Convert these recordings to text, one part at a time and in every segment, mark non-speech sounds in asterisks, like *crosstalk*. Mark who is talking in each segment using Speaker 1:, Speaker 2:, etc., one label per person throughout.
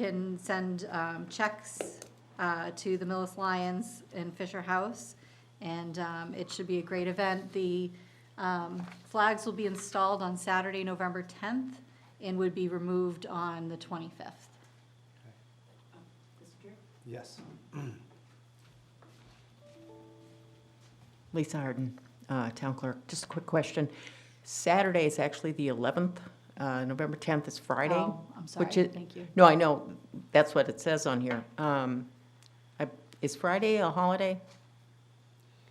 Speaker 1: can send um, checks uh, to the Millis Lions in Fisher House, and um, it should be a great event. The um, flags will be installed on Saturday, November 10th, and would be removed on the 25th.
Speaker 2: Mr. Chair?
Speaker 3: Yes.
Speaker 4: Lisa Harden, uh, Town Clerk, just a quick question. Saturday is actually the 11th, uh, November 10th is Friday.
Speaker 1: Oh, I'm sorry,
Speaker 4: which is-
Speaker 1: thank you.
Speaker 4: No, I know, that's what it says on here. Um, I- Is Friday a holiday?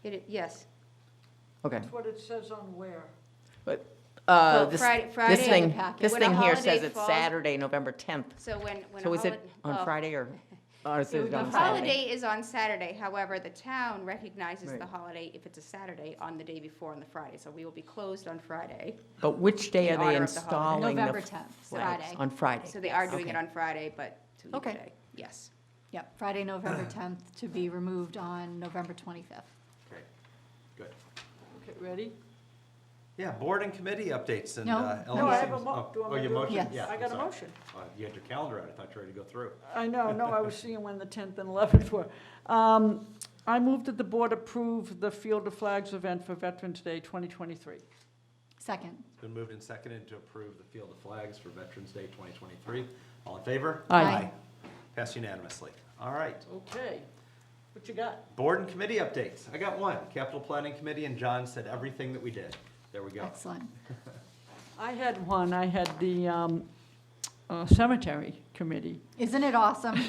Speaker 1: It- Yes.
Speaker 4: Okay.
Speaker 5: That's what it says on where.
Speaker 4: But, uh,
Speaker 2: Well,
Speaker 4: this-
Speaker 2: Friday- Friday
Speaker 4: This
Speaker 2: in the
Speaker 4: thing,
Speaker 1: packet.
Speaker 4: this
Speaker 2: When a
Speaker 4: thing here
Speaker 2: holiday
Speaker 4: says it's
Speaker 2: falls-
Speaker 4: Saturday, November 10th.
Speaker 2: So when, when a
Speaker 4: So is it
Speaker 2: holi- oh.
Speaker 4: on
Speaker 2: well,
Speaker 4: Friday or, or is
Speaker 5: It
Speaker 4: it
Speaker 5: would be
Speaker 4: on
Speaker 2: The
Speaker 4: Saturday?
Speaker 2: holiday is on Saturday, however, the town recognizes the
Speaker 4: Right.
Speaker 2: holiday if it's a Saturday on the day before on the Friday, so we will be closed on Friday.
Speaker 4: But which day
Speaker 2: in
Speaker 4: are they
Speaker 2: honor of the holiday.
Speaker 4: installing the
Speaker 1: November
Speaker 4: f-
Speaker 1: 10th,
Speaker 4: flags?
Speaker 1: Friday.
Speaker 4: On Friday.
Speaker 2: So they are doing it
Speaker 4: Okay.
Speaker 2: on Friday, but to leave
Speaker 4: Okay.
Speaker 2: today, yes.
Speaker 1: Yep, Friday, November
Speaker 4: *clears throat*
Speaker 1: 10th, to be removed on November 25th.
Speaker 3: Great, good.
Speaker 5: Okay, ready?
Speaker 3: Yeah, board and committee updates and.
Speaker 1: No,
Speaker 3: uh,
Speaker 1: no,
Speaker 5: No, I have
Speaker 3: LECs.
Speaker 5: a mo,
Speaker 3: Oh,
Speaker 5: do I?
Speaker 3: Oh, your motion,
Speaker 1: Yes.
Speaker 3: yeah.
Speaker 5: I got a
Speaker 3: sorry.
Speaker 5: motion.
Speaker 3: Uh, You had your calendar out, I thought you were ready to go through.
Speaker 5: *laughs* I know, no, I was seeing when the 10th and 11th were. Um, I move that the board approve the Field of Flags event for Veterans Day 2023.
Speaker 1: Second.
Speaker 3: It's been moved and seconded to approve the Field of Flags for Veterans Day 2023. All in favor?
Speaker 5: Aye.
Speaker 1: Aye.
Speaker 3: Passed unanimously. All right,
Speaker 5: Okay, what you got?
Speaker 3: board and committee updates. I got one, capital planning committee, and John said everything that we did. There we go.
Speaker 1: Excellent.
Speaker 5: I had one, I had the um, uh, Cemetery Committee.
Speaker 1: Isn't it awesome?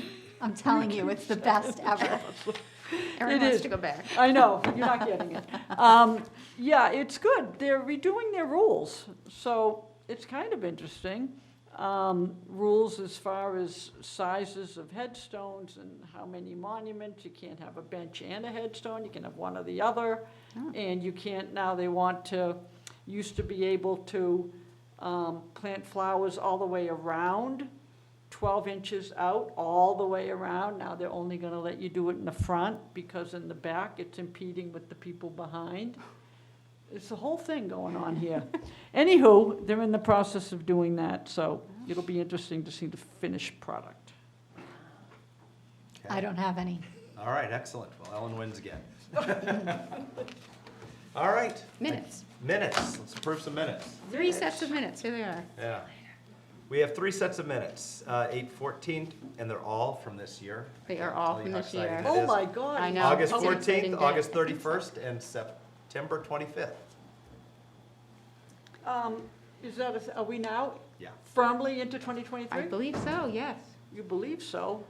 Speaker 1: I'm telling you, it's the best ever.
Speaker 2: Erin
Speaker 5: It
Speaker 2: wants
Speaker 5: is.
Speaker 2: to go back.
Speaker 5: I know, you're not getting it. Um, yeah, it's good. They're redoing their rules, so it's kind of interesting. Um, rules as far as sizes of headstones and how many monuments. You can't have a bench and a headstone. You can have one or the other.
Speaker 1: Oh.
Speaker 5: And you can't, now they want to, used to be able to um, plant flowers all the way around, 12 inches out, all the way around. Now they're only going to let you do it in the front because in the back, it's impeding with the people behind. It's a whole thing going on
Speaker 2: *laughs*
Speaker 5: here. Anywho, they're in the process of doing that, so it'll be interesting to see the finished product.
Speaker 3: Okay.
Speaker 1: I don't have any.
Speaker 3: All right, excellent. Well, Ellen wins again. *laughs* All right,
Speaker 2: Minutes,
Speaker 3: minutes. Let's approve some minutes.
Speaker 2: three sets of minutes, here they are.
Speaker 3: Yeah. We have three sets of minutes, uh, eight fourteen, and they're all from this year. I
Speaker 2: They
Speaker 3: can't
Speaker 2: are all
Speaker 3: tell you
Speaker 2: from
Speaker 3: how
Speaker 2: this year.
Speaker 3: exciting that
Speaker 5: Oh
Speaker 3: is.
Speaker 5: my God.
Speaker 2: I know.
Speaker 3: August
Speaker 2: It's an exciting
Speaker 3: fourteenth,
Speaker 2: day.
Speaker 3: August thirty-first, and September twenty-fifth.
Speaker 5: Um, Is that, a- are we now
Speaker 3: Yeah.
Speaker 5: firmly into
Speaker 2: I
Speaker 5: 2023?
Speaker 2: believe so, yes.
Speaker 5: You believe so?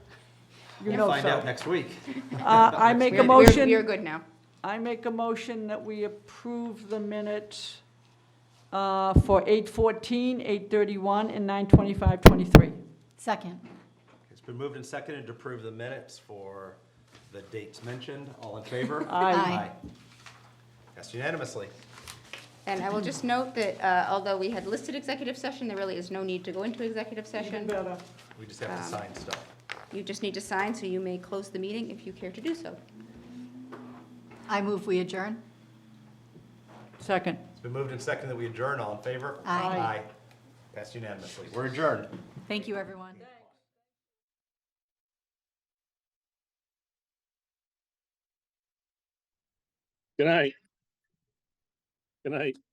Speaker 5: You
Speaker 3: We'll
Speaker 5: know
Speaker 3: Find out
Speaker 5: so.
Speaker 3: next week.
Speaker 5: Uh,
Speaker 3: *laughs*
Speaker 5: I make
Speaker 2: We're-
Speaker 5: a
Speaker 2: we're-
Speaker 5: motion.
Speaker 2: We are good now.
Speaker 5: I make a motion that we approve the minutes uh, for 8:14, 8:31, and 9:25:23.
Speaker 1: Second.
Speaker 3: It's been moved and seconded to approve the minutes for the dates mentioned. All in favor?
Speaker 5: *laughs* Aye.
Speaker 1: Aye.
Speaker 3: Passed unanimously.
Speaker 2: And I will just note that uh, although we had listed executive session, there really is no need to go into executive
Speaker 5: Even
Speaker 2: session.
Speaker 5: better.
Speaker 3: We just have to
Speaker 2: Um,
Speaker 3: sign stuff.
Speaker 2: You just need to sign, so you may close the meeting if you care to do so.
Speaker 1: I move we adjourn.
Speaker 5: Second.
Speaker 3: It's been moved and seconded that we adjourn. All in favor?
Speaker 1: Aye.
Speaker 3: Aye. Passed unanimously. We're adjourned.
Speaker 1: Thank you, everyone.
Speaker 6: Good night. Good night.